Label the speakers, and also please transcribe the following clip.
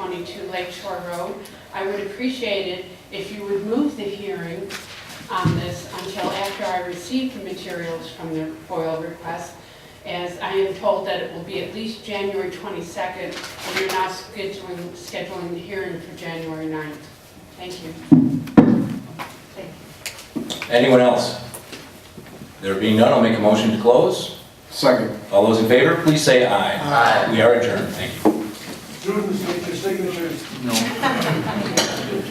Speaker 1: 22 Lake Shore Road. I would appreciate it if you would move the hearing on this until after I receive the materials from the FOIL request, as I am told that it will be at least January 22nd, and you're now scheduling, scheduling the hearing for January 9th. Thank you. Thank you.
Speaker 2: Anyone else? There being none, I'll make a motion to close.
Speaker 3: Second.
Speaker 2: All those in favor, please say aye.
Speaker 3: Aye.
Speaker 2: We are adjourned. Thank you.
Speaker 4: Students, make your signatures.
Speaker 3: No.